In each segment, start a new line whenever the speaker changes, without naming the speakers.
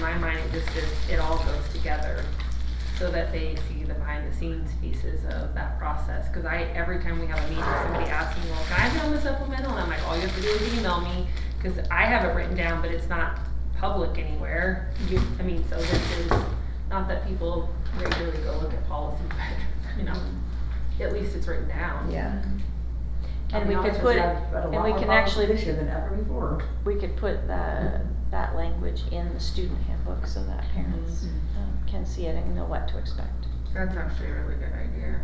my mind, it just is, it all goes together so that they see the behind the scenes pieces of that process. Cause I, every time we have a meeting, somebody asks me, well, can I be on the supplemental? And I'm like, all you have to do is email me, cause I have it written down, but it's not public anywhere. You, I mean, so this is, not that people regularly go look at policy, but, you know, at least it's written down.
Yeah.
And we could put, and we can actually,
This year than ever before.
we could put the, that language in the student handbook so that parents um, can see it and know what to expect.
That's actually a really good idea.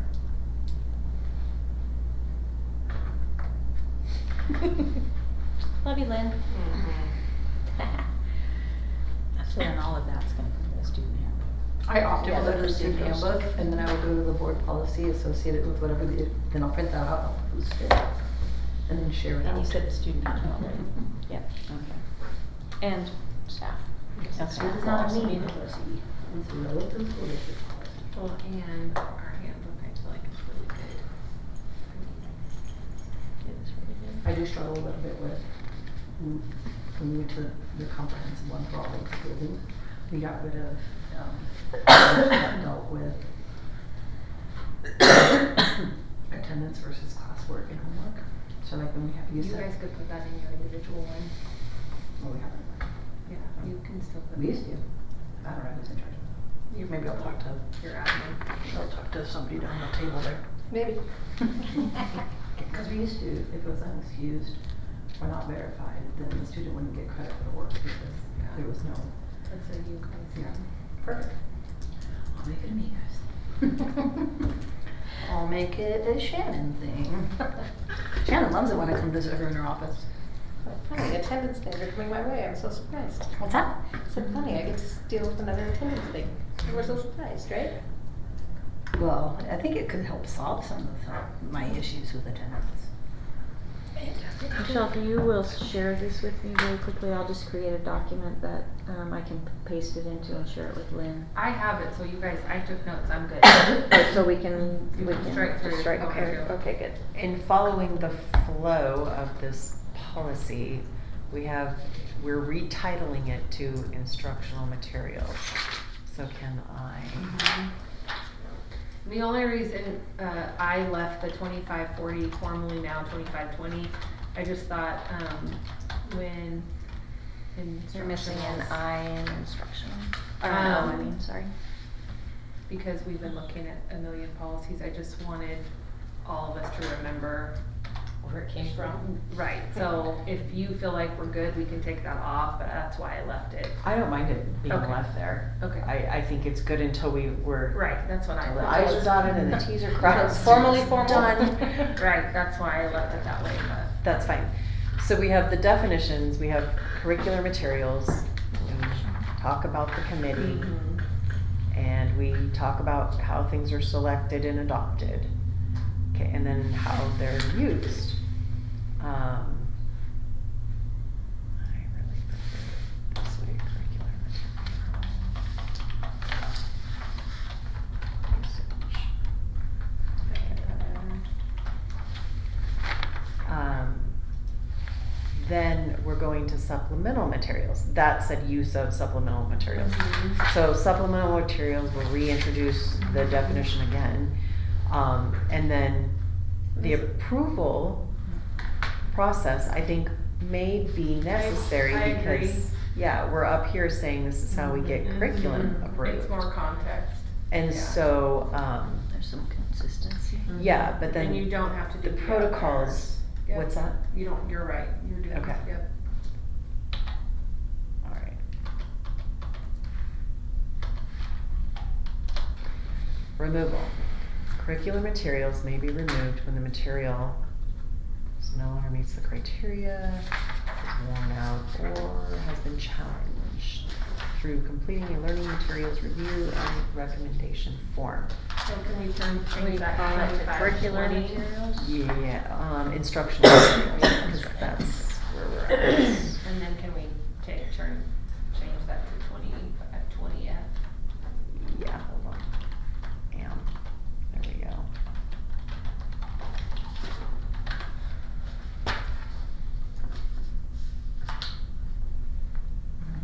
Love you, Lynn. So then all of that's gonna come to the student handbook.
I often
Yeah,
will go to the
those
student
are those.
handbook, and then I will go to the board policy associated with whatever the, then I'll print that out, I'll post it, and then share it out.
And you said the student handbook, right? Yep, Mm-hmm. okay. And staff. That's
It's not me, it's relative to district policy.
Well, and our handbook, I feel like it's really good.
I do struggle a little bit with, mm, when we went to the comprehensive one for all of schools, we got rid of, um, that dealt with attendance versus classwork and homework, so like when we have, you
You guys
said,
could put that in your individual one.
well, we haven't,
Yeah, you can still put.
we used to, I don't know who's in charge of
you
that. Maybe I'll talk to,
Your admin.
I'll talk to somebody down the table there.
Maybe.
Because we used to, if it was unexcused or not verified, then the student wouldn't get credit for the work because there was no.
That's a you guys.
Yeah. Perfect. I'll make it amigos. I'll make it a Shannon thing. Shannon loves it when I come visit her in her office.
Funny, attendance things are coming my way, I'm so surprised.
What's that?
So funny, I get to deal with another attendance thing. You We're so surprised, right?
Well, I think it could help solve some of the- my issues with attendance.
Michelle, you will share this with me really quickly. I'll just create a document that, um, I can paste it into and share it with Lynn.
I have it, so you guys, I took notes, I'm good.
Oh, So we can,
You
we
can
can
strike through.
just strike
Okay.
through, okay, good.
In following the flow of this policy, we have, we're retitling it to instructional materials. So can I?
Um, The only reason, uh, I left the twenty-five forty formally now twenty-five twenty, I just thought, um, when
You're missing an
instructionals-
I in instructional, or an O, I
Um,
mean, sorry.
because we've been looking at a million policies, I just wanted all of us to remember.
Where it came from.
Right, so if you feel like we're good, we can take that off, but that's why I left it.
I don't mind it being
Okay.
left there.
Okay.
I, I think it's good until we were,
Right, that's what I
the
left.
i's are dotted and the t's are crossed.
Formally formal.
Done.
Right, that's why I left it that way, but.
That's fine. So we have the definitions, we have curricular materials, we talk about the committee, and we talk about how things are selected and adopted. Okay, and then how they're used. Um, I really prefer it this way, curricular material. Usage.
Mm-hmm.
Um, Then we're going to supplemental materials. That said use of supplemental materials. So supplemental materials will reintroduce the definition again. Um, and then the approval process, I think, may be necessary
I agree.
because, yeah, we're up here saying this is how we get curriculum
Mhm.
approved.
It's more context.
And
yeah.
so, um,
There's some consistency.
yeah, but
And you
then,
don't have to do.
the
other
protocols,
parts. Yep,
what's that?
You don't, you're right, you're doing,
Okay.
yep.
All right. Removal. Curricular materials may be removed when the material is no longer meets the criteria, is worn out, or has been challenged through completing a learning materials review and recommendation form.
So can we turn,
We
change that
call it
to
curricular
25, 20?
materials.
Yeah, um, instructional materials, because that's where we're at.
And then can we uh,